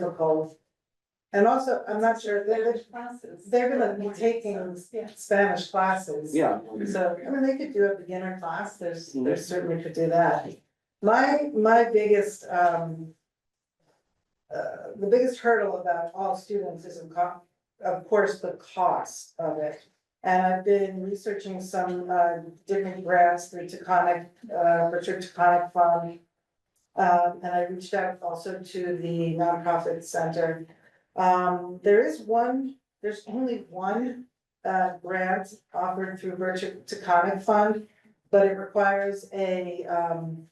difficult. And also, I'm not sure, they're, they're gonna be taking Spanish classes. Yeah. So, I mean, they could do a beginner class, there's, Mhm. there certainly could do that. My, my biggest, um. Uh, the biggest hurdle about all students is of co- of course, the cost of it. And I've been researching some, uh, different grants through Taconic, uh, Richard Taconic Fund. Um, and I reached out also to the nonprofit center. Um, there is one, there's only one uh grant offered through Virtue Taconic Fund, but it requires a um.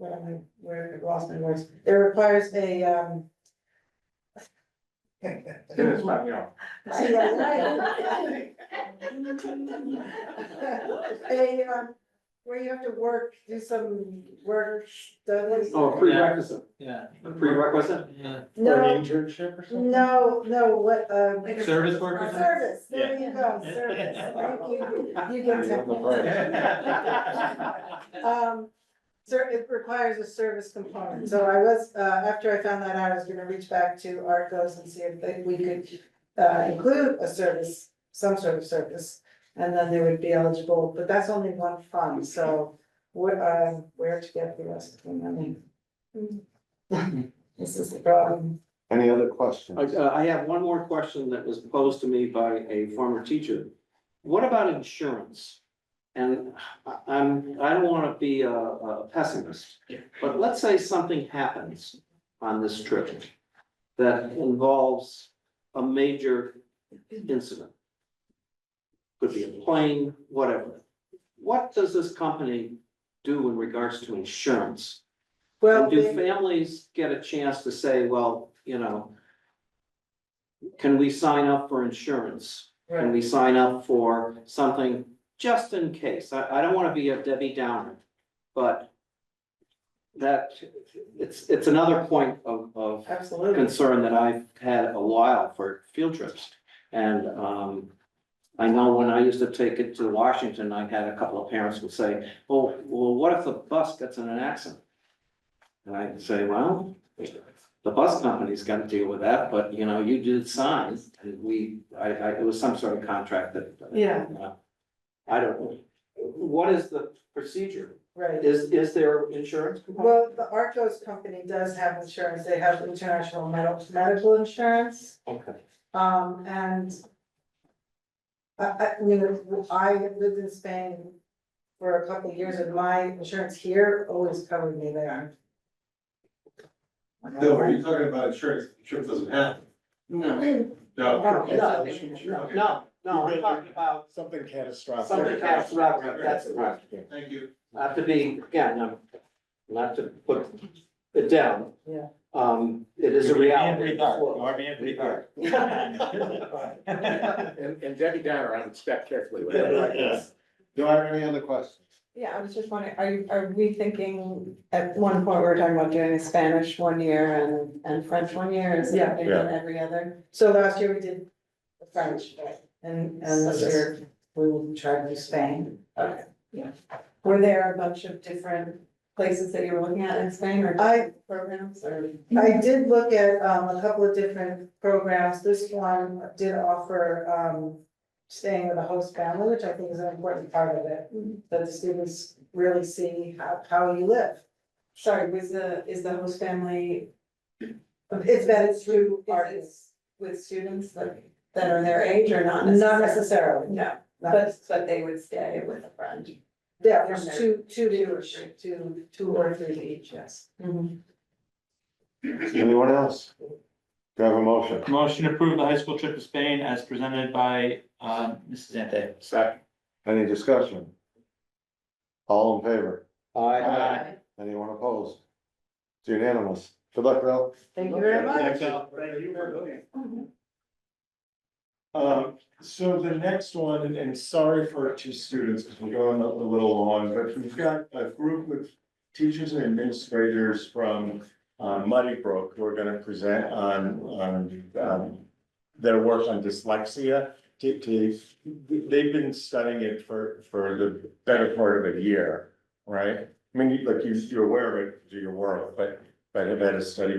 What am I, where, I lost my words, it requires a um. Tienes español. A um, where you have to work, do some work, studies. Oh, prerequisite, Yeah. a prerequisite Yeah. for No, an internship or something? no, no, what um. Service workers? Service, there you go, service, thank you, you get technical. Um, sir, it requires a service component, so I was, uh, after I found that out, I was gonna reach back to Arcos and see if they- we could. Uh, include a service, some sort of service, and then they would be eligible, but that's only one fund, so. Where, uh, where to get the rest of them, I mean. This is the problem, Any other I, questions? uh, I have one more question that was posed to me by a former teacher. What about insurance? And I- I'm, I don't wanna be a- a pessimist, but let's say something happens on this trip that involves a major incident. Could be a plane, whatever. What does this company do in regards to insurance? well, And do they- families get a chance to say, well, you know, can we sign up for insurance? Can we sign up for something just in case? I, I don't wanna be a Debbie Downer, but that, it's, it's another point of, of absolutely, concern that I've had a while for field trips. And um, I know when I used to take it to Washington, I had a couple of parents would say, "Well, well, what if the bus gets in an accident?" And I'd say, well, the bus company's gotta deal with that, but you know, you did signs, and we, I, I, it was some sort of contract that. uh, Yeah. I don't, know. what is the procedure? right. Is, is there insurance? component? Well, the Arcos company does have insurance, they have international medical, medical insurance, Okay. um, and. I, I, I mean, I lived in Spain for a couple of years and my insurance here always covered me there. No, are you talking about insurance? Insurance doesn't happen. No, Oh, No. No. Okay. no, no, I'm talking about Something catastrophic. Something catastrophic, that's right. Thank you. Not to be, again, I'm, not to put it down. Yeah. Um, it is a reality. And, and Debbie Downer, I'm step carefully with Yeah. Do I have any other questions? Yeah, I was just wondering, are you, are we thinking, at one point, we were talking about doing Spanish one year and, and French one year, is Yeah. it bigger than every other? So last year we did the French, and, and this year we will try to do Spain. Were there a bunch of different places that you were looking at in Spain or I, programs or? I did look at um a couple of different programs, this one did offer um. Staying with a host family, which I think is an important part of it, that the students really see how how you live. Sorry, was the, is the host family? It's that it's through Is art, it with students that, that are their age or not necessarily? not necessarily, No, not- but, but they would stay with a friend. yeah, there's two, two to, two, two or three each, yes. Mm-hmm. Anyone else? Do I have a motion? Motion to approve the high school trip to Spain as presented by, um, Mrs. Ante. Second. Any discussion? All in favor? I, Aye. Anyone opposed? It's unanimous. Good luck, Bill. Thank you very much. Um, so the next one, and- and sorry for two students, because we're going a a little long, but we've got a group with teachers and administrators from uh, Muddy Brook who are gonna present on, on, um, their work on dyslexia. They- they- they've been studying it for, for the better part of a year, right? I mean, you- like you, you're aware of it, do your work, but but have had a study